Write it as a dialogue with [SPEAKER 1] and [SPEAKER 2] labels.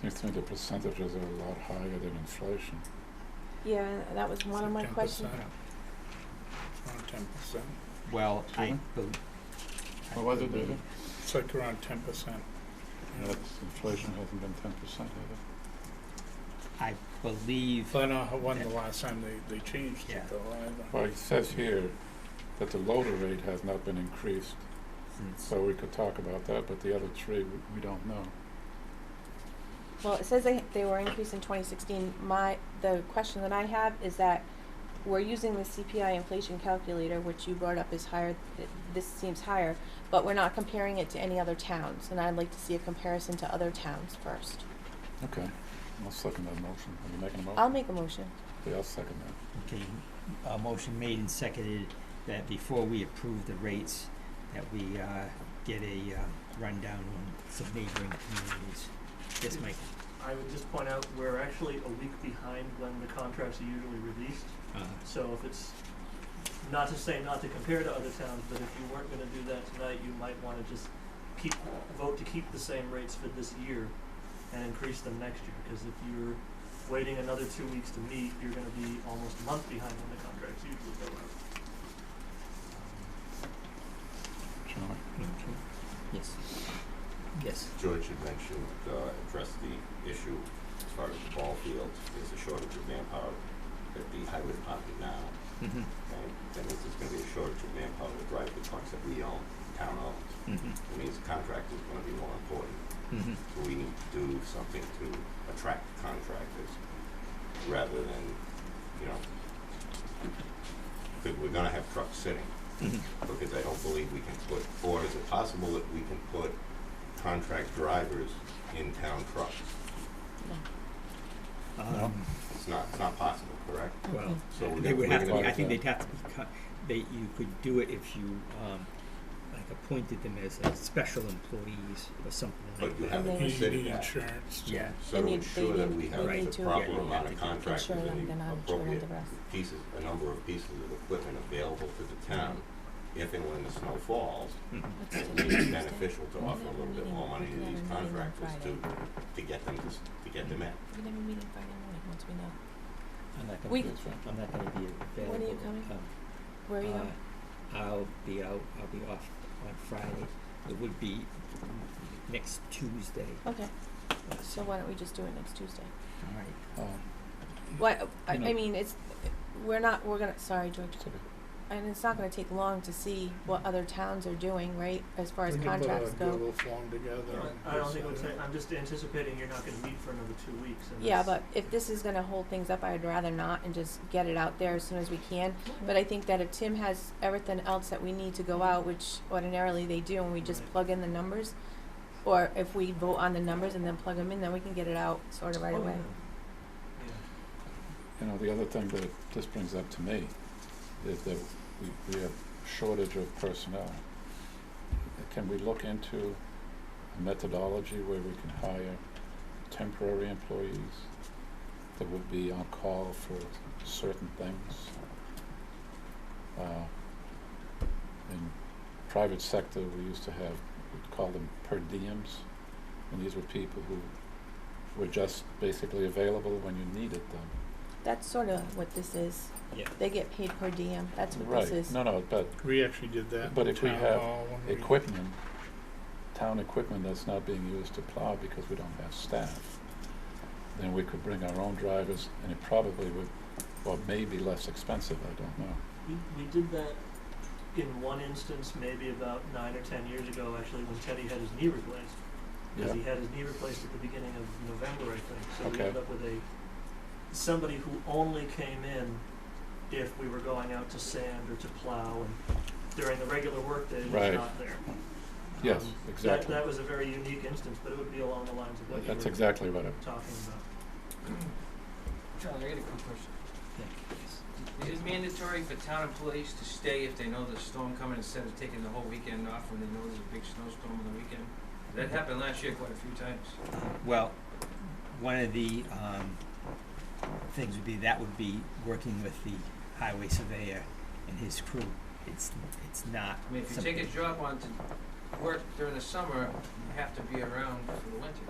[SPEAKER 1] Seems to me the percentages are a lot higher than inflation.
[SPEAKER 2] Yeah, that was one of my questions.
[SPEAKER 3] It's around ten percent.
[SPEAKER 4] Well, I
[SPEAKER 1] Mhm.
[SPEAKER 4] bel- I
[SPEAKER 1] What was it,
[SPEAKER 4] believe-
[SPEAKER 1] David?
[SPEAKER 3] It's like around ten percent.
[SPEAKER 1] That's, inflation hasn't been ten percent either.
[SPEAKER 4] I believe,
[SPEAKER 3] I don't know how- when the last time they, they changed
[SPEAKER 4] Yeah.
[SPEAKER 3] it though either.
[SPEAKER 1] Well, it says here that the loader rate has not been increased,
[SPEAKER 4] since-
[SPEAKER 1] so we could talk about that, but the other three, we, we don't know.
[SPEAKER 2] Well, it says they, they were increased in twenty sixteen. My, the question that I have is that we're using the CPI inflation calculator, which you brought up is higher, th- this seems higher, but we're not comparing it to any other towns, and I'd like to see a comparison to other towns first.
[SPEAKER 1] Okay, I'll second that motion. Are you making a motion?
[SPEAKER 2] I'll make a motion.
[SPEAKER 1] Yeah, I'll second that.
[SPEAKER 4] okay, a uh, motion made and seconded that before we approve the rates, that we uh, get a uh, rundown on some neighboring communities. Yes, Mike?
[SPEAKER 5] I would just point out, we're actually a week behind when the contracts are usually released. So if it's, not to say not to compare to other towns, but if you weren't gonna do that tonight, you might wanna just keep, vote to keep the same rates for this year and increase them next year, because if you're waiting another two weeks to meet, you're gonna be almost a month behind when the contracts usually go out.
[SPEAKER 1] Charlie?
[SPEAKER 4] Yes. Yes.
[SPEAKER 6] George had mentioned, uh, addressed the issue as far as the ball field, there's a shortage of manpower at the highway department now,
[SPEAKER 4] Mhm,
[SPEAKER 6] and that means there's gonna be a shortage of manpower to drive the trucks that we own, town owns.
[SPEAKER 4] mhm,
[SPEAKER 6] It means the contractor is gonna be more important,
[SPEAKER 4] mhm.
[SPEAKER 6] so we need to do something to attract contractors rather than, you know, because we're gonna have trucks sitting.
[SPEAKER 4] Mhm.
[SPEAKER 6] because I don't believe we can put, or is it possible that we can put contract drivers in town trucks?
[SPEAKER 4] Um,
[SPEAKER 6] It's not, it's not possible, correct?
[SPEAKER 4] Well,
[SPEAKER 6] So we're
[SPEAKER 4] they
[SPEAKER 6] gonna-
[SPEAKER 4] would
[SPEAKER 6] we're
[SPEAKER 4] have to,
[SPEAKER 6] gonna
[SPEAKER 4] be- I
[SPEAKER 6] have
[SPEAKER 4] think
[SPEAKER 6] to-
[SPEAKER 4] they'd have to be, co- they, you could do it if you, um, like appointed them as, uh special employees or something like
[SPEAKER 6] But
[SPEAKER 4] that.
[SPEAKER 6] you have to
[SPEAKER 2] And then-
[SPEAKER 3] You
[SPEAKER 6] consider
[SPEAKER 3] need
[SPEAKER 6] that,
[SPEAKER 3] insurance. to-
[SPEAKER 4] Yeah,
[SPEAKER 6] so to
[SPEAKER 2] They need- they
[SPEAKER 6] ensure that
[SPEAKER 2] need-
[SPEAKER 6] we
[SPEAKER 2] they
[SPEAKER 6] have
[SPEAKER 4] need
[SPEAKER 6] the
[SPEAKER 2] to-
[SPEAKER 6] proper
[SPEAKER 4] Yeah,
[SPEAKER 6] amount
[SPEAKER 4] to-
[SPEAKER 6] of
[SPEAKER 4] to
[SPEAKER 6] contractors
[SPEAKER 2] Sure, I'm
[SPEAKER 6] and
[SPEAKER 2] gonna
[SPEAKER 6] the
[SPEAKER 2] sure with
[SPEAKER 6] appropriate
[SPEAKER 2] the rest.
[SPEAKER 6] pieces, a number of pieces of equipment available to the town if and when the snow falls,
[SPEAKER 4] Mhm.
[SPEAKER 2] Let's
[SPEAKER 6] it
[SPEAKER 2] do
[SPEAKER 6] may be
[SPEAKER 2] Tuesday.
[SPEAKER 6] beneficial to offer a little bit more money to
[SPEAKER 2] Yeah,
[SPEAKER 6] these
[SPEAKER 2] meeting on
[SPEAKER 6] contractors to,
[SPEAKER 2] Friday.
[SPEAKER 6] to get them, to get them in.
[SPEAKER 2] We never meet on Friday morning once we know.
[SPEAKER 4] I'm not gonna
[SPEAKER 2] We-
[SPEAKER 4] be,
[SPEAKER 1] That's right.
[SPEAKER 4] I'm not gonna be available.
[SPEAKER 2] When are you
[SPEAKER 4] to
[SPEAKER 2] coming?
[SPEAKER 4] come.
[SPEAKER 2] Where are you going?
[SPEAKER 4] Uh, I'll be out, I'll be off on Friday. It would be next Tuesday.
[SPEAKER 2] Okay,
[SPEAKER 4] uh,
[SPEAKER 2] so why don't we just do it next Tuesday?
[SPEAKER 4] All right.
[SPEAKER 1] Um,
[SPEAKER 2] What, I,
[SPEAKER 1] You know-
[SPEAKER 2] I mean, it's, we're not, we're gonna, sorry, George.
[SPEAKER 1] it's okay.
[SPEAKER 2] And it's not gonna take long to see what other towns are doing, right, as far as
[SPEAKER 3] We can put a-
[SPEAKER 2] contracts
[SPEAKER 3] Do a
[SPEAKER 2] go.
[SPEAKER 3] little form together. and
[SPEAKER 5] I don't think it would
[SPEAKER 3] decide
[SPEAKER 5] take, I'm just anticipating you're not gonna meet for another two weeks, and
[SPEAKER 2] Yeah,
[SPEAKER 5] that's-
[SPEAKER 2] but if this is gonna hold things up, I'd rather not and just get it out there as soon as we can.
[SPEAKER 1] Mm-hmm.
[SPEAKER 2] But I think that if Tim has everything else that we need to go out, which ordinarily they do, and we just
[SPEAKER 5] Right.
[SPEAKER 2] plug in the numbers, or if we vote on the numbers and then plug them in, then we can get it out sort of right
[SPEAKER 5] Oh,
[SPEAKER 2] away.
[SPEAKER 5] yeah. Yeah.
[SPEAKER 1] You know, the other thing that this brings up to me is that we, we have shortage of personnel. Can we look into a methodology where we can hire temporary employees that would be on call for certain things? Uh, in private sector, we used to have, we'd call them per diems, and these were people who were just basically available when you needed them.
[SPEAKER 2] That's sort of what this is.
[SPEAKER 4] Yeah.
[SPEAKER 2] They get paid per diem, that's what
[SPEAKER 1] Right,
[SPEAKER 2] this is.
[SPEAKER 1] no, no, but
[SPEAKER 3] that. We actually did that
[SPEAKER 1] But
[SPEAKER 3] in
[SPEAKER 1] if we
[SPEAKER 3] town
[SPEAKER 1] have
[SPEAKER 3] hall when we.
[SPEAKER 1] equipment, town equipment that's not being used to plow because we don't have staff, then we could bring our own drivers and it probably would, or maybe less expensive, I don't know.
[SPEAKER 5] We, we did that in one instance, maybe about nine or ten years ago, actually, when Teddy had his knee replaced. Because he
[SPEAKER 1] Yeah,
[SPEAKER 5] had his knee replaced at the beginning of November, I think. So
[SPEAKER 1] Okay.
[SPEAKER 5] we ended up with a somebody who only came in if we were going out to sand or to plow, and during the regular workday was
[SPEAKER 1] Right.
[SPEAKER 5] not there.
[SPEAKER 1] yes,
[SPEAKER 5] Um, that-
[SPEAKER 1] exactly.
[SPEAKER 5] That, was a very unique instance, but it would be along the lines of what you
[SPEAKER 1] That's
[SPEAKER 5] were
[SPEAKER 1] exactly what I,
[SPEAKER 5] talking about.
[SPEAKER 7] Charlie, I got a quick question.
[SPEAKER 4] Yeah, yes.
[SPEAKER 7] Is it mandatory for town employees to stay if they know there's a storm coming instead of taking the whole weekend off when they know there's a big snowstorm on the weekend? That happened last year quite a few times.
[SPEAKER 4] Well, one of the, um, things would be, that would be working with the highway surveyor and his crew. It's, it's not
[SPEAKER 7] I mean, if you take a
[SPEAKER 4] something-
[SPEAKER 7] job on to work during the summer, you have to be around for the winter.